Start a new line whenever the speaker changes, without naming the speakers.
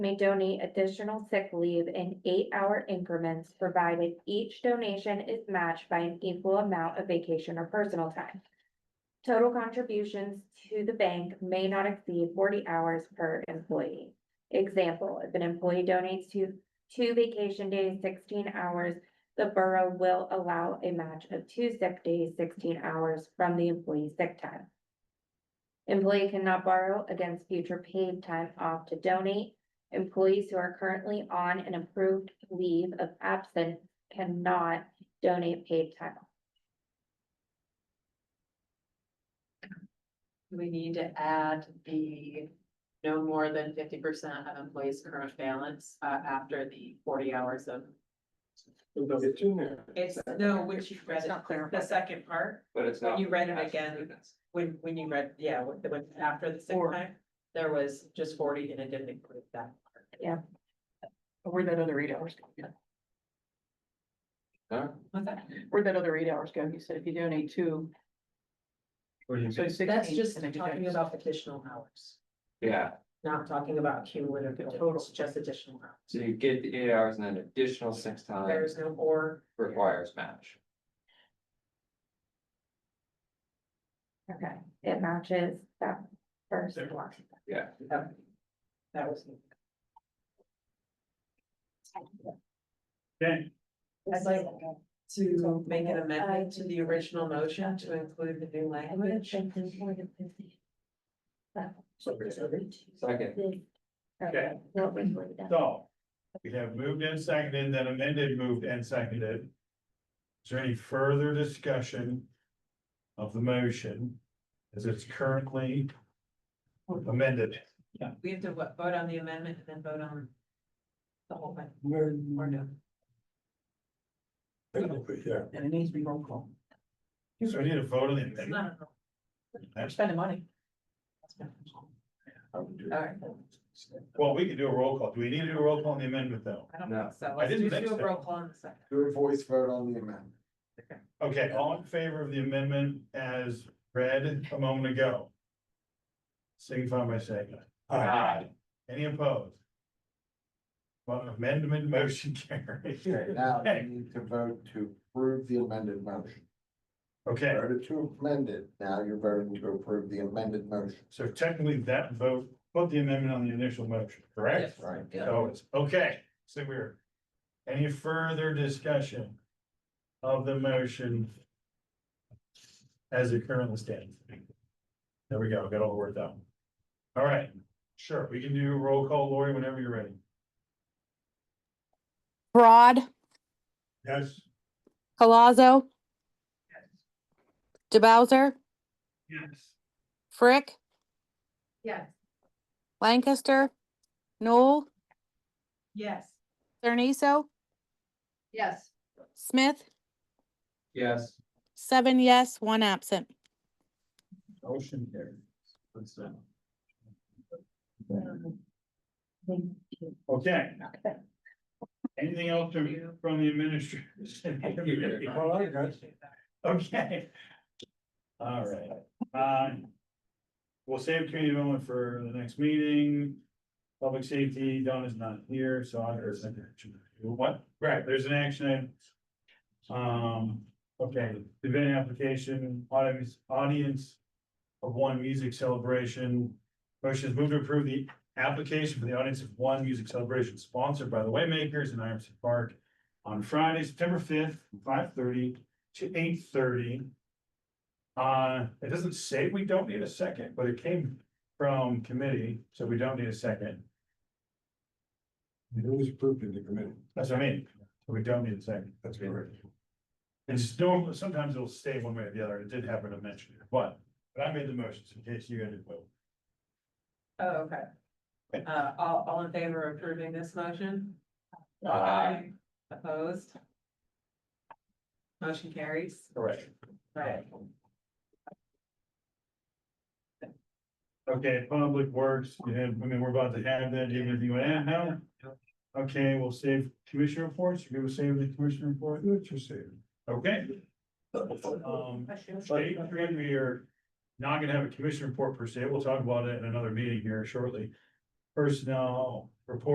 may donate additional sick leave in eight-hour increments, provided each donation is matched by an equal amount of vacation or personal time. Total contributions to the bank may not exceed forty hours per employee. Example, if an employee donates to two vacation days, sixteen hours, the borough will allow a match of two sick days, sixteen hours from the employee's sick time. Employee cannot borrow against future paid time off to donate. Employees who are currently on an approved leave of absence cannot donate paid time. off.
Do we need to add the no more than fifty percent of employees' current balance uh after the forty hours of?
It's in there.
It's, no, which you read
It's
it,
not clear.
the second part,
But it's
when
not.
you read it again, when when you read, yeah, when when after the sick
Or-
time. There was just forty and it didn't include that. part.
Where'd that other eight hours go?
Huh?
What's that?
Where'd that other eight hours go? You said if you donate two, so sixteen.
That's just
and then you
talking
guys-
about additional hours,
Yeah,
not talking about cumulative total,
Total.
it's just additional hours.
so you get the eight hours and then additional six times
There's no or.
requires match.
Okay, it matches that first one.
Yeah,
Okay. That was.
Okay.
I'd like to make an amendment to the original motion to include the new language.
second,
Okay, what was it then?
So, we have moved and seconded, then amended, moved and seconded. Is there any further discussion of the motion as it's currently amended?
We have to what, vote on the amendment and then vote on the whole thing, or no?
So
And it needs to be roll call.
we need a vote on the
It's
amendment.
not a roll.
We're
That's-
spending money.
Alright.
Well, we can do a roll call. Do we need to do a roll call on the amendment though?
I don't
No.
think so. Let's
didn't
just do
think
a
so.
roll call in a second.
Do a voice vote on the amendment.
Okay, all in favor of the amendment as read a moment ago? Signify by saying aye.
Aye.
Any opposed? Well, amendment motion carries.
Okay, now
Okay.
you need to vote to approve the amended motion.
Okay,
Voted to amend it, now you're voting to approve the amended motion.
so technically that vote, put the amendment on the initial motion, correct?
Yes.
Right.
Yeah.
So Oh, it's, okay, so we're, any further discussion of the motion as it currently stands? There we go, got all the words out. All right, sure, we can do roll call, Lori, whenever you're ready.
Broad,
Yes.
Colazo, DeBowser,
Yes.
Frick,
Yes.
Lancaster, Noel,
Yes.
Cerniso,
Yes.
Smith,
yes.
seven yes, one absent.
Motion carries. Let's, uh, Okay. Anything else from, from the administration?
All right, guys.
Okay. All right, um. We'll save community development for the next meeting. Public safety, Don is not here, so I, there's an action. What? Right, there's an action. item. Um, okay, event application, audience, audience. Of one music celebration. Motion is moved to approve the application for the audience of one music celebration sponsored by the Waymakers in Iverson Park. On Friday, September fifth, five thirty to eight thirty. Uh, it doesn't say we don't need a second, but it came from committee, so we don't need a second.
It was approved in the committee.
That's what I mean. We don't need a second.
That's
correct. And it's normal, sometimes it'll stay one way or the other. It did happen to mention it, but, but I made the motions in case you guys didn't vote.
Oh, okay. Uh, all, all in favor of approving this motion?
Aye.
Opposed? Motion carries.
Correct.
Right.
Okay, Public Works, you have, I mean, we're about to have that, do you have anything you want to add now? Okay, we'll save commissioner reports, you're gonna save the commissioner report? What you saving? Okay. Um, state three, we are not gonna have a commission report per se, we'll talk about it in another meeting here shortly. Personnel report.